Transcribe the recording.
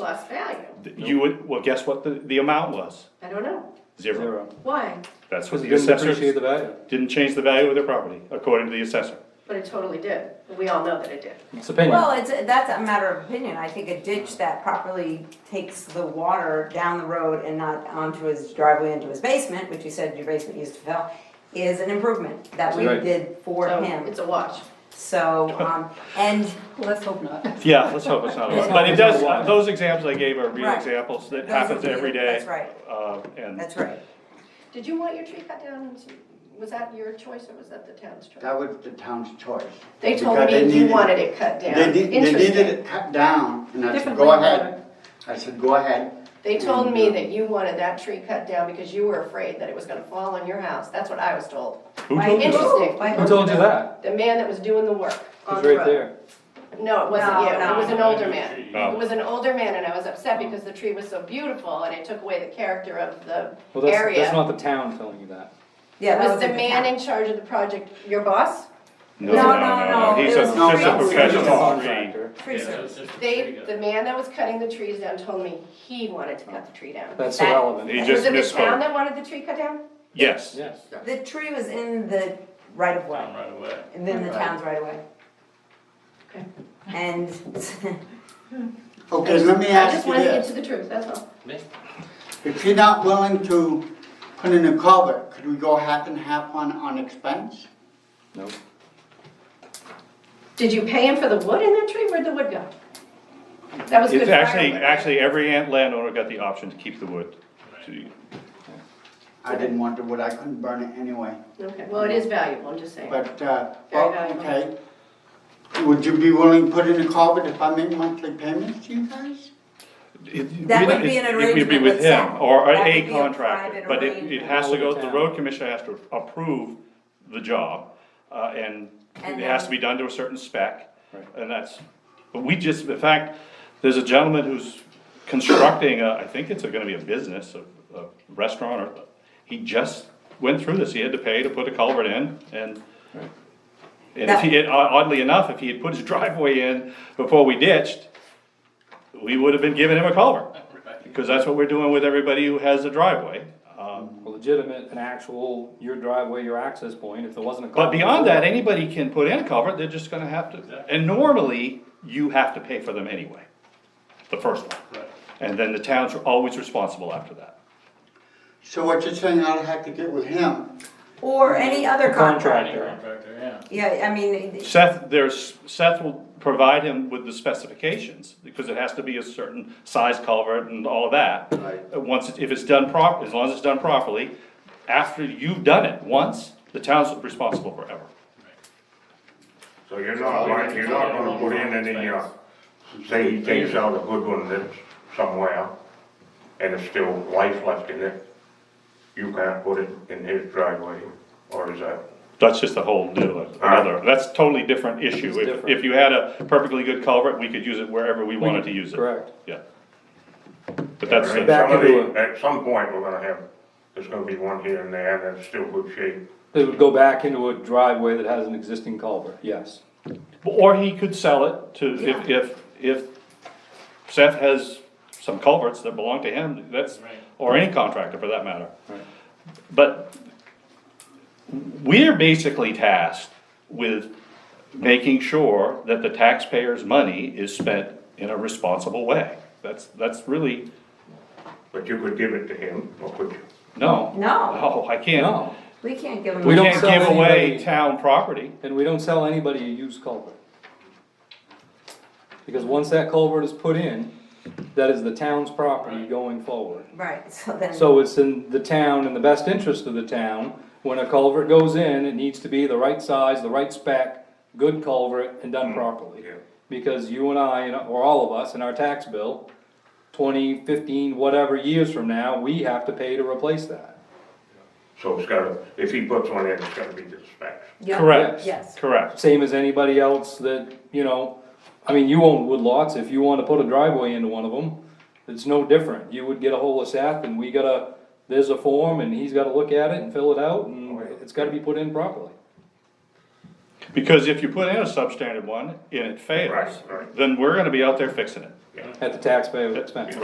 lost value. You would, well, guess what the, the amount was? I don't know. Zero. Zero. Why? That's what Because you the didn't appreciate assessors, the value. didn't change the value of their property, according to the assessor. But it totally did. We all know that it did. It's opinion. Well, it's, that's a matter of opinion, I think a ditch that properly takes the water down the road and not onto his driveway into his basement, which you said your basement used to fill, is an improvement that we Right. did for So him, It's a wash. so, um, and Let's hope not. Yeah, let's hope it's not a lot, but it does, uh, those examples I gave are real Right. examples that Those happens are real, every day. that's right. Uh, and, That's right. Did you want your tree cut down? and s- Was that your choice or was that the town's choice? That was the town's choice. They told Because they me you needed- wanted it cut down. They did, they needed Interesting. it cut down, and I said, Different go way of ahead. I said, go ahead. They told me that you wanted that tree cut down because you were afraid that it was gonna fall on your house. That's what I was told. who Why- told you? that? Interesting. why- Who told you that? The man that was doing the work on It's the right road. there. No, it wasn't No, you. It no. was an older man. Oh. It was an older man and I was upset because the tree was so beautiful and it took away the character of the Well, that's, that's area. not the town telling you that. Yeah, that Was the in man town. in charge of the project your boss? No, No, no, no, no, no, no, he's it a, was No, just a it's- professional tree. Contractor. Tree service. They, the man that was cutting the trees down told me he wanted to cut the tree down. That's That- irrelevant. He Was just it the town misspoke, that wanted the tree cut down? yes. Yes. The tree was in the right of way. Right away. And then the town's right of way. Okay. And Okay, let me I ask just you wanted to get this. to the truth, that's all. If you're not willing to put in a culvert, could we go half and half on, on expense? No. Did you pay him for the wood in that tree? Where'd the wood go? That was good It's actually, firewood. actually, every ant- landowner got the option to keep the wood. I didn't want to, wood. I couldn't burn it anyway, Okay, well, it is valuable, I'm just saying. but, uh, Very well, valuable. okay. Would you be willing to put in a culvert if I make monthly payments to you guys? That would be an It would be with arrangement with him, Seth. or a That would be a contractor, private but it, it arrangement. has to go, the Town. road commissioner has to approve the job, uh, and it And has to then- be done to a certain spec. Right. And that's, but we just, in fact, there's a gentleman who's constructing, a- I think it's gonna be a business, a, a restaurant, or, he just went through this, he had to pay to put a culvert in, and and if he, had- oddly enough, if he had put his driveway in before we ditched, we would have been giving him a culvert. Because that's what we're doing with everybody who has a driveway. Um, Legitimate, an actual, your driveway, your access point, if there wasn't a. But culvert beyond before- that, anybody can put in a culvert, they're just gonna have to, and normally, you have to pay for them anyway, the first one. And then the town's always responsible after that. So what you're saying, I'd have to get with him? or any other A contract. Contractor. Yeah, I mean, Seth, there's, Seth will provide him with the specifications, because it has to be a certain size culvert and all of that. Right. Uh, Once, it- if it's done prop, as long as it's done properly, after you've done it once, the town's responsible forever. So you're not like, you're not gonna put in and then you, say he takes out a good one that's somewhere, and there's still life left in it, you can't put it in his driveway, or uh, is that? That's just a whole new, uh, another, that's totally different issue. It's If, different. if you had a perfectly good culvert, we could use it wherever we wanted to use it. Correct. Yeah. But that's, I mean, Back some of into the- At some point, we're gonna have, there's gonna be one here and there that's still good shape. It would go back into a driveway that has an existing culvert, yes. or he could sell it to, if, if, if Seth has some culverts that belong to him, that's, or any contractor for that matter. Right. But we're basically tasked with making sure that the taxpayers' money is spent in a responsible way. That's, that's really, But you could give it to him, or could you? no. No. No, I can't, No, we can't give them. we We don't can't sell give away anybody- town property. and we don't sell anybody a used culvert. Because once that culvert is put in, that is the town's property going forward. Right, so then. So it's in the town, in the best interest of the town, when a culvert goes in, it needs to be the right size, the right spec, good culvert, and done properly. yeah. Because you and I, and- or all of us, in our tax bill, twenty, fifteen, whatever years from now, we have to pay to replace that. So it's gotta, if he puts one in, it's gotta be to the specs. Yeah, Correct. Yes. Correct. Same as anybody else that, you know, I mean, you own woodlots, if you wanna put a driveway into one of them, it's no different, you would get a hold of Seth, and we gotta, there's a form, and he's gotta look at it and fill it out, and it's gotta be put in properly. Because if you put in a substandard one and it fails, Right, right. then we're gonna be out there fixing it. at the taxpayer's expense.